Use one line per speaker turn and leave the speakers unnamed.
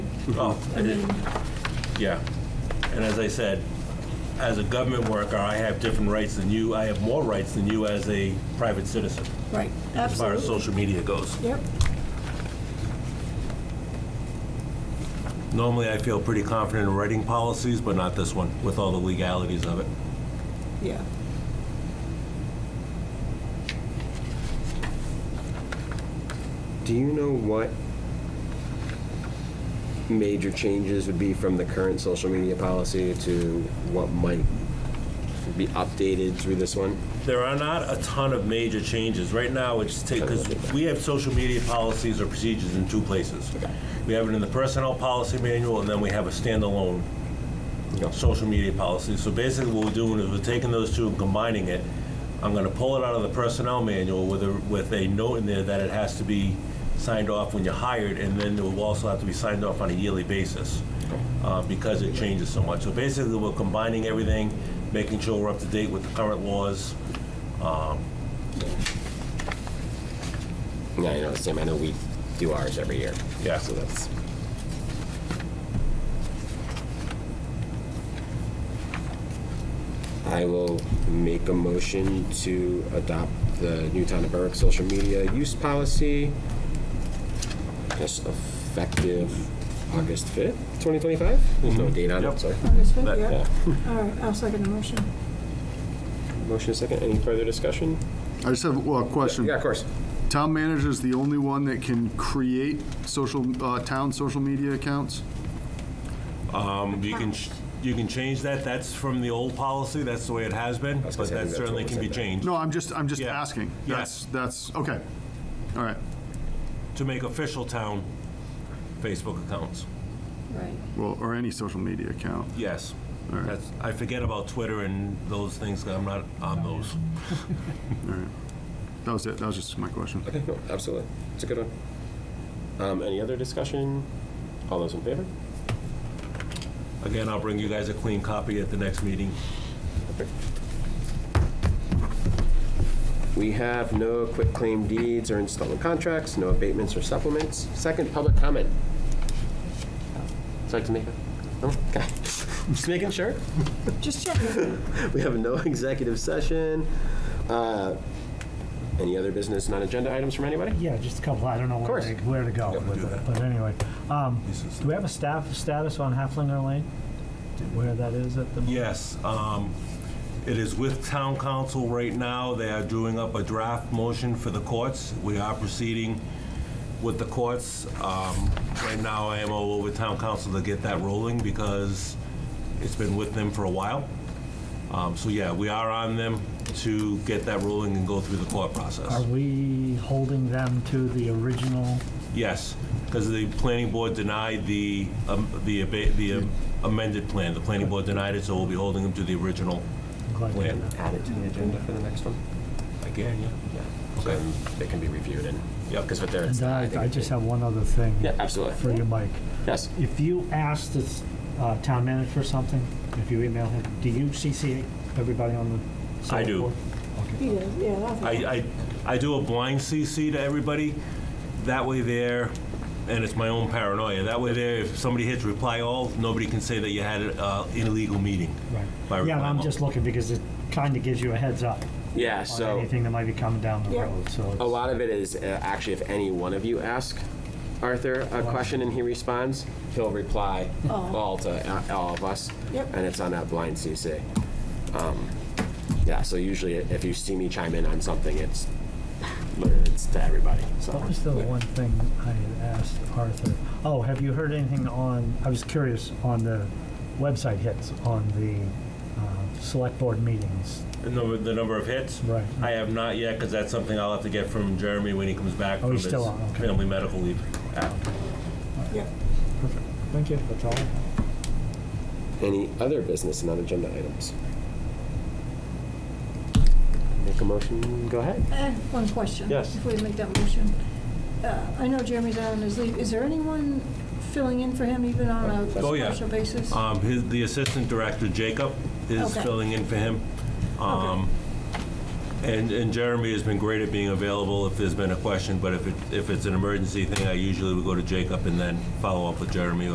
Well, Oh, I did, yeah. And as I said, as a government worker, I have different rights than you. I have more rights than you as a private citizen,
Right,
as far as
absolutely.
social media goes.
Yep,
Normally, I feel pretty confident in writing policies, but not this one, with all the legalities of it.
yeah.
Do you know what major changes would be from the current social media policy to what might be updated through this one?
There are not a ton of major changes. Right now, it's take, because we have social media policies or procedures in two places. We have it in the personnel policy manual, and then we have a standalone social media policy. So basically, what we're doing is we're taking those two and combining it. I'm gonna pull it out of the personnel manual with a, with a note in there that it has to be signed off when you're hired, and then it will also have to be signed off on a yearly basis, uh, because it changes so much. So basically, we're combining everything, making sure we're up to date with the current laws,
Yeah, you know, Sam, I know we do ours every year.
Yeah.
So that's, I will make a motion to adopt the Newtown and Berwick social media use policy just effective August 5th, 2025? There's no date on
Yep.
it, sorry.
August fifth,
That-
yeah.
Yeah.
All right, I'll second the motion.
Motion second, any further discussion?
I just have well, a question.
Yeah, of course.
Town manager is the only one that can create social, uh, town social media accounts?
Um, You can, ch- you can change that, that's from the old policy, that's the way it has been,
was
but
gonna say, I
that
think that's what
certainly
we
can be
said there.
changed.
No, I'm just, I'm just
Yeah.
asking.
Yeah.
That's, that's, okay. All right.
To make official town Facebook accounts,
Right.
Well, or any social media account.
yes.
All right.
That's, I forget about Twitter and those things, 'cause I'm not on those.
That was it. That was just my question.
Okay, no, absolutely. It's a good one. Um, any other discussion? All those in favor?
Again, I'll bring you guys a clean copy at the next meeting.
We have no quick claim deeds or installment contracts, no abatements or supplements. Second, public comment. Would you like to make a, no? Okay. Just making sure.
Just checking.
We have no executive session. Uh, Any other business, non-agenda items from anybody?
Yeah, just a couple, I don't know where
course.
to, where to go with it, but anyway. Um, Do we have a staff status on Halflinger Lane? Do- Where that is at the? moment?
Yes, um, it is with town council right now. They are doing up a draft motion for the courts. We are proceeding with the courts. Um, Right now, I am all over town council to get that rolling because it's been with them for a while. Um, So yeah, we are on them to get that rolling and go through the court
Are
process.
we holding them to the original?
Yes, because the planning board denied the um, the abate- the amended plan. The planning board denied it, so we'll be holding them to the original
I'm glad you did
plan.
that.
Add it to the agenda for the next one.
Again, yeah.
Yeah.
Okay.
So um, They can be reviewed and, yeah, because with their.
And uh, I, I just have one other thing.
Yeah,
For
absolutely.
you, Mike.
Yes.
If you ask the uh, town manager for something, if you email him, do you CC everybody on the? select
do.
board?
He does, yeah. I think-
I, I, I do a blind CC to everybody. That way there, and it's my own paranoia, that way there, if somebody hits reply all, nobody can say that you had uh, an illegal meeting. by
Right.
reply
Yeah, and I'm
all.
just looking because it kind of gives you a heads up
Yeah,
on
so.
anything that might be coming down the
Yeah.
road, so. it's-
A lot of it is uh, actually if any one of you ask Arthur a question and he responds, he'll reply
Oh.
all to uh, all of us.
Yep.
And it's on that blind CC. Um, Yeah, so usually if you see me chime in on something, it's, it's to everybody, so.
What was the one thing I had asked Arthur? Oh, have you heard anything on, I was curious, on the website hits on the uh, select board meetings?
The number, the number of hits?
Right.
I have not yet, because that's something I'll have to get from Jeremy when he comes back
Oh,
from
he's
his
still on, okay.
family medical leave. Ah,
Yeah.
Perfect. Thank you. That's all.
Any other business and agenda items? Make a motion, go ahead.
I have One question.
Yes.
Before we make that motion. Uh, I know Jeremy's out on his leave. Is there anyone filling in for him even on a
Oh, yeah.
partial basis?
Um, his, the assistant director, Jacob, is
Okay.
filling in for him. Um, And, and Jeremy has been great at being available if there's been a question, but if it, if it's an emergency thing, I usually would go to Jacob and then follow up with Jeremy